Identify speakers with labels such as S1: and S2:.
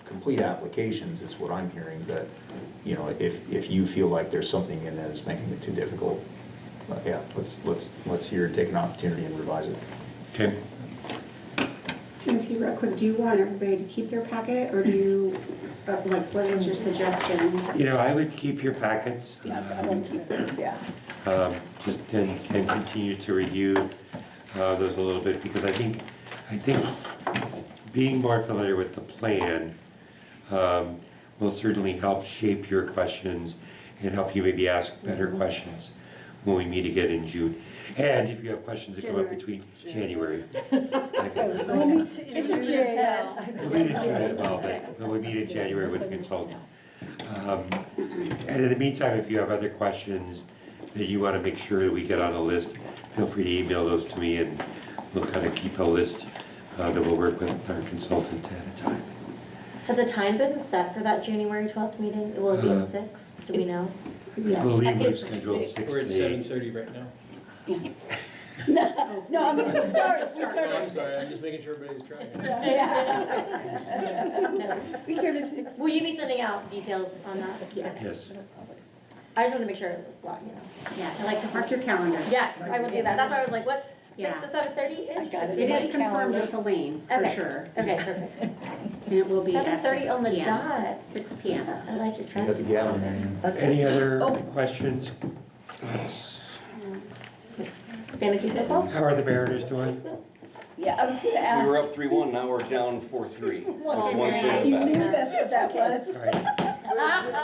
S1: complete applications is what I'm hearing, but, you know, if, if you feel like there's something in that that's making it too difficult, uh, yeah, let's, let's, let's hear, it, take an opportunity and revise it.
S2: Okay,
S3: Timothy, real quick, do you want everybody to keep their packet, or do you, uh, like, what is your suggestion?
S2: you know, I would keep your packets.
S4: Yeah, I would keep this, yeah.
S2: um, just, and, and continue to review uh, those a little bit, because I think, I think being more familiar with the plan um, will certainly help shape your questions and help you maybe ask better
S4: Mm-hmm.
S2: questions when we meet again in June. And if you have questions that come up
S3: January.
S2: between January.
S3: Oh,
S4: Well, we t-
S5: It's
S4: we
S5: a
S4: do
S5: J.
S4: this now.
S2: We meet in January, well, but- but we meet in January with a consultant. Um, And in the meantime, if you have other questions that you want to make sure that we get on the list, feel free to email those to me and we'll kind of keep a list uh, that we'll work with our consultant at a time.
S6: Has a time been set for that January twelfth meeting? Will it be
S2: Uh,
S6: at six? Do we know?
S2: I
S4: Yeah.
S2: believe
S6: I think
S2: we've
S6: it's
S2: scheduled
S6: six.
S2: six
S7: We're at
S2: to
S7: seven
S2: eight.
S7: thirty right now.
S4: No, no, I mean, we started, we
S7: So I'm
S4: started.
S7: sorry, I'm just making sure everybody's trying.
S4: Yeah. We started six.
S6: Will you be sending out details on that?
S4: Yeah.
S6: Okay.
S2: Yes,
S6: I just want to make sure, it's blocked, you know.
S3: I like to mark your calendar.
S6: Yeah, I will do that. That's why I was like, what, six
S3: Yeah.
S6: to seven thirty-ish?
S4: I got
S3: It is confirmed with Elaine, for
S6: Okay.
S3: sure,
S6: Okay, perfect.
S3: and it will be
S6: Seven
S3: at
S6: thirty
S3: six
S6: on the
S3: PM.
S6: dot.
S3: Six PM.
S6: I like
S1: You got the
S6: your trend.
S1: gavel in there.
S2: any other
S6: Oh.
S2: questions? Thoughts?
S6: Fantasy football?
S2: How are the Mariners doing?
S4: Yeah, I was gonna
S8: We were
S4: ask.
S8: up three one, now we're down four three.
S6: Well,
S8: One
S6: then
S8: swing
S6: I-
S8: of the
S4: You
S8: bat.
S4: knew that's what that was.
S2: All right.